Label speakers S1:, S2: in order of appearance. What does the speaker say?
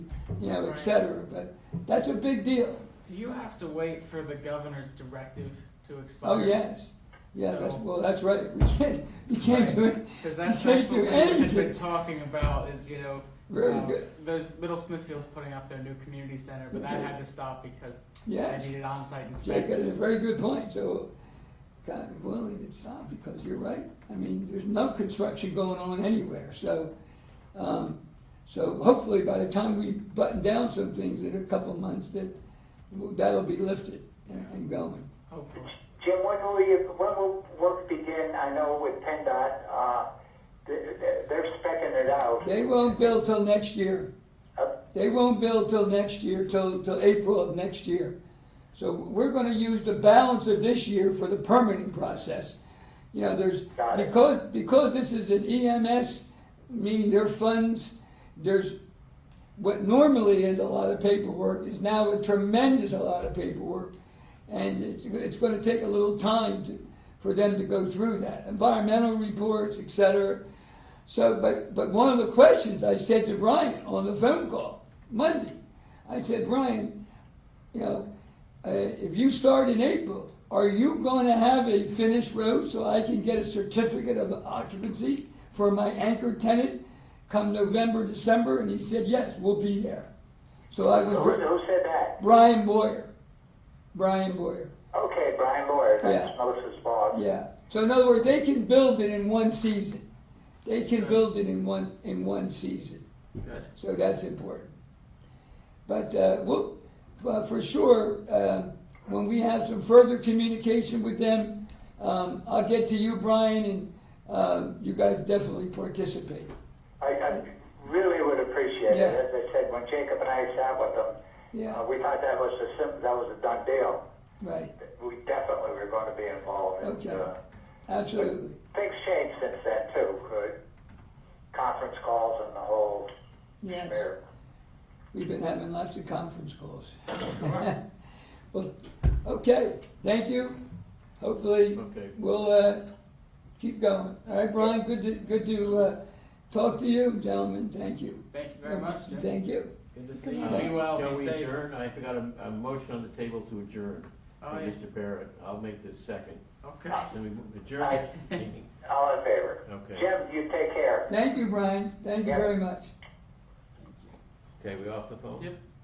S1: you know, et
S2: Right.
S1: cetera, but that's a big deal.
S2: Do you have to wait for the governor's directive to expire?
S1: Oh, yes, yeah, that's,
S2: So-
S1: well, that's right, we can't, we can't do it, we
S2: Because that's, that's
S1: can't
S2: what
S1: do
S2: we had been
S1: anything.
S2: talking about is, you know,
S1: Very
S2: uh,
S1: good.
S2: there's Middle Smithfield's putting up their new community center, but that
S1: Okay.
S2: had to stop because
S1: Yes.
S2: they needed on-site
S1: Jack, that
S2: inspectors.
S1: is a very good point, so, God willing, it's not, because you're right, I mean, there's no construction going on anywhere, so, um, so hopefully by the time we button down some things in a couple of months, that, that'll be lifted and and going.
S2: Hopefully.
S3: Jim, when will you, when will work begin, I know with PennDOT, uh, th- th- they're specking it out.
S1: They won't build till next year.
S3: Uh,
S1: They won't build till next year, till, till April of next year. So we're gonna use the balance of this year for the permitting process. You know, there's,
S3: Got it.
S1: because, because this is an E EMS, meaning their funds, there's, what normally is a lot of paperwork is now a tremendous a lot of paperwork. And it's, it's gonna take a little time to, for them to go through that, environmental reports, et cetera. So, but, but one of the questions I said to Brian on the phone call Monday, I said, Brian, you know, uh, if you start in April, are you going to have a finished road so I can get a certificate of occupancy for my anchor tenant come November, December? And he said, yes, we'll be there. So I
S3: Who,
S1: was,
S3: who said that?
S1: Brian Boyer, Brian Boyer.
S3: Okay, Brian Boyer,
S1: Yeah.
S3: that's Melissa's boss.
S1: Yeah. So in other words, they can build it in one season. They can build it in one in one season.
S2: Good.
S1: So that's important. But uh, we'll, well, for sure, um, when we have some further communication with them, um, I'll get to you, Brian, and um, you guys definitely participate.
S3: I, I really would appreciate it,
S1: Yeah.
S3: as I said, when Jacob and I sat with them,
S1: Yeah.
S3: uh, we thought that was a sim, that was a done deal.
S1: Right.
S3: We definitely were gonna be involved and,
S1: Okay.
S3: uh,
S1: Absolutely.
S3: things changed since then too, uh, conference calls and the whole
S1: Yes.
S3: mayor.
S1: We've been having lots of conference calls.
S2: Sure.
S1: Well, okay, thank you. Hopefully,
S4: Okay.
S1: we'll, uh, keep going. All right, Brian, good to, good to, uh, talk to you, gentlemen, thank you.
S2: Thank you very much, Jim.
S1: Thank you.
S2: Good to see you.
S4: Uh,
S2: Be well,
S4: Shall
S2: be
S4: we
S2: safe.
S4: adjourn? I forgot a, a motion on the table to adjourn.
S2: Oh,
S4: by
S2: yeah.
S4: Mr. Barrett, I'll make this second.
S2: Okay.
S4: Then we move- adjourn
S3: Aye.
S4: the meeting.
S3: All in favor?
S4: Okay.
S3: Jim, you take care.
S1: Thank you, Brian, thank you
S3: Yeah.
S1: very much.
S4: Okay, we off the phone?
S2: Yep.